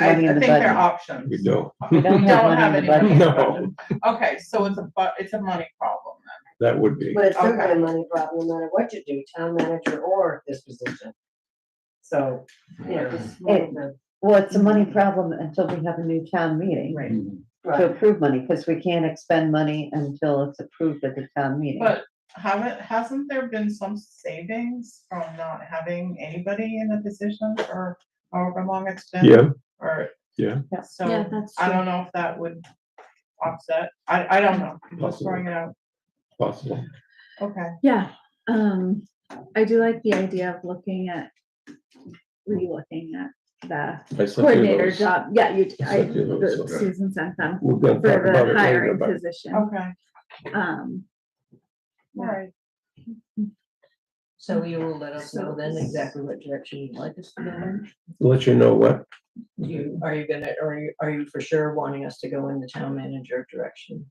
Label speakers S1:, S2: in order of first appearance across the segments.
S1: I, I
S2: money in
S1: think
S2: the
S1: they're
S2: budget.
S1: options.
S3: We don't,
S2: We don't
S1: We
S2: have money in the budget.
S1: in the
S3: budget.
S1: budget. Okay, so it's a bu, it's a money problem then.
S3: that would be,
S4: But it's
S1: Okay.
S4: certainly a money problem, no matter what you do, town manager or this position. So, you know, it's more of a-
S2: Well, it's a money problem until we have a new town meeting.
S4: Right.
S2: To
S4: right,
S2: approve money, because we can't expend money until it's approved at the town meeting.
S1: But haven't, hasn't there been some savings from not having anybody in a position for however long it's been?
S3: yeah,
S1: Or.
S3: Yeah.
S2: Yeah.
S1: So
S5: that's
S1: I don't know if that would offset. I, I don't know. I'm just
S3: Possible.
S1: throwing it out.
S3: possible.
S1: Okay.
S5: Yeah, um, I do like the idea of looking at, re-looking at the
S3: I sent you
S5: coordinator
S3: those.
S5: job. Yeah, you,
S3: I
S5: I,
S3: sent you those,
S5: the-
S3: okay.
S5: Susan sent them
S3: We're gonna
S5: for
S3: talk about
S5: the
S3: it later,
S5: hiring
S3: but
S5: position.
S1: Okay,
S5: Um,
S1: all right.
S6: So you will let us know then exactly what direction you'd like us to go in?
S3: let you know what,
S6: Do You, are you gonna, are you, are you for sure wanting us to go in the town manager direction?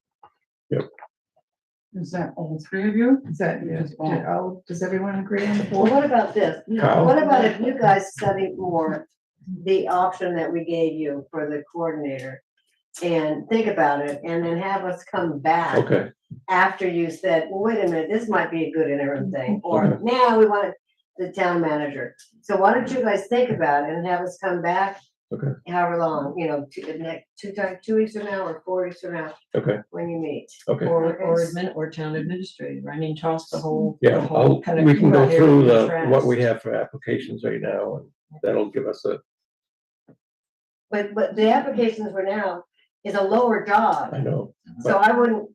S7: Is that all three of you? Is that just all? does everyone agree on the
S4: well, what about this?
S3: Kyle,
S4: What about if you guys study more the option that we gave you for the coordinator? And think about it and then have us come back
S3: okay,
S4: after you said, well, wait a minute, this might be a good interim thing, or
S3: Okay.
S4: now we want the town manager. So why don't you guys think about it and have us come back?
S3: Okay.
S4: However long, you know, two, the next, two time, two weeks from now or four weeks from now,
S3: okay,
S4: when you meet.
S3: okay.
S6: Or, or
S4: Okay.
S6: admin, or town administrator? I mean, toss the whole. the
S3: Yeah, I'll,
S6: whole kind of
S3: we can go
S6: area
S3: through the,
S6: contrast.
S3: what we have for applications right now, and that'll give us a,
S4: But, but the applications for now is a lower
S3: I
S4: job,
S3: know,
S4: so I wouldn't,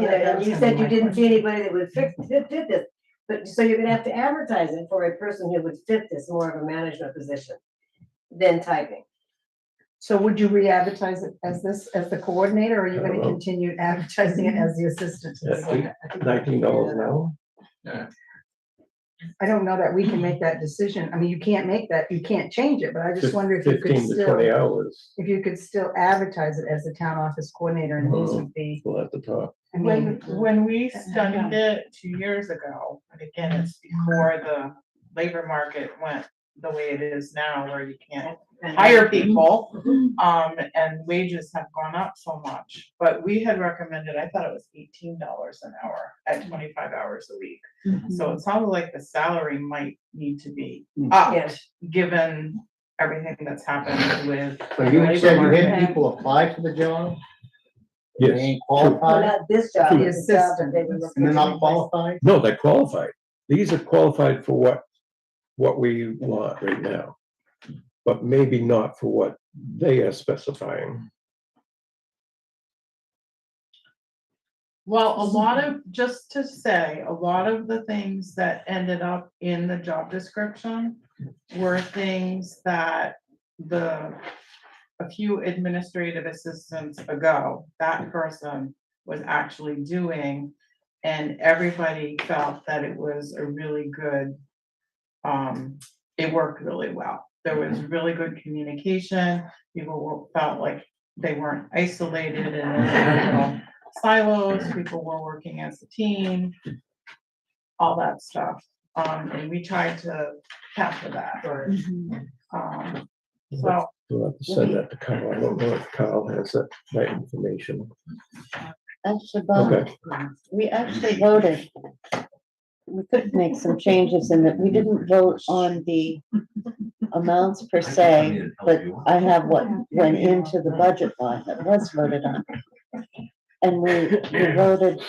S4: you know, and you said you didn't
S7: do.
S4: see anybody that would fit, fit, fit this. But, so you're gonna have to advertise it for a person who would fit this more of a management position than typing.
S7: So would you re-advertise it as this, as the coordinator, or are you
S3: I don't
S7: gonna
S3: know.
S7: continue advertising it as the assistant? to the
S3: Yeah,
S7: coordinator? I think-
S3: nineteen dollars an hour.
S7: I don't know that we can make that decision. I mean, you can't make that, you can't change it, but I just
S3: fif-
S7: wonder if you could
S3: Fifteen to twenty
S7: still,
S3: hours,
S7: if you could still advertise it as the town office coordinator and these
S3: Mhm.
S7: would be,
S3: we'll have to talk,
S7: I
S1: When,
S7: mean,
S2: uh,
S1: when we studied it two years ago, and again, it's before the labor market went the way it is now, where you can't hire people. Um, and wages have gone up so much, but we had recommended, I thought it was eighteen dollars an hour at twenty-five hours a week. So it sounded like the salary might need to be
S8: Mm.
S4: Yeah.
S1: upped, given everything that's happened with.
S8: So you
S1: labor
S8: said you
S1: market.
S8: had people apply for the job? They
S3: yes,
S8: ain't
S4: Well,
S8: qualified,
S4: not this job,
S7: The
S4: it's the job that
S7: assistant.
S4: they were looking.
S8: and they're
S4: to
S8: not
S4: replace.
S8: qualified?
S3: no, they're qualified, these are qualified for what, what we want right now. But maybe not for what they are specifying,
S1: Well, a lot of, just to say, a lot of the things that ended up in the job description were things that the, a few administrative assistants ago, that person was actually doing. And everybody felt that it was a really good, um, it worked really well. There was really good communication. People were- felt like they weren't isolated and in their little silos, people were working as a team, all that stuff. Um, and we tried to capture that, or, um, so,
S3: we'll have to send that to Kyle, I don't know if Kyle has that, that information,
S2: Actually,
S3: okay.
S2: Bob, we actually voted. We could make some changes in that. We didn't vote on the amounts per se, but I have what went into the budget line that was voted on. And we, we voted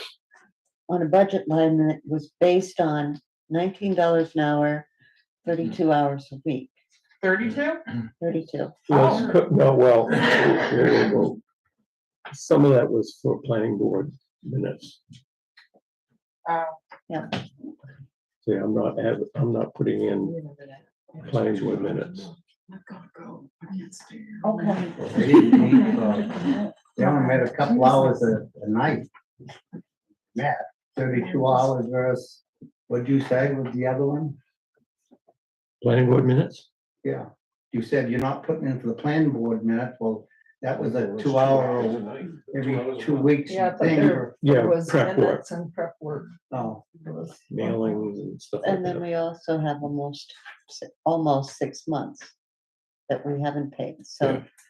S2: on a budget line that was based on nineteen dollars an hour, thirty-two hours a week,
S1: thirty-two?
S2: thirty-two. um,
S3: Was, co- no, well, whoa, whoa, whoa. some of that was for planning board minutes.
S1: Oh.
S2: Uh, Yeah.
S3: See, I'm not, ad- I'm not putting in planning board minutes.
S1: Okay.
S8: They didn't need, uh, They only made a couple hours a, a night. Yeah, thirty-two hours versus, what'd you say was the other one?
S3: Planning board minutes?
S8: Yeah, you said you're not putting in for the planning board minute, well, that was a two-hour, every two weeks
S7: Yeah, but
S8: thing.
S7: there-
S8: or-
S3: Yeah, prep work,
S7: and prep work.
S8: Oh,
S3: mailings and stuff like
S2: And then
S3: that.
S2: we also have almost, si- almost six months that we haven't paid, so.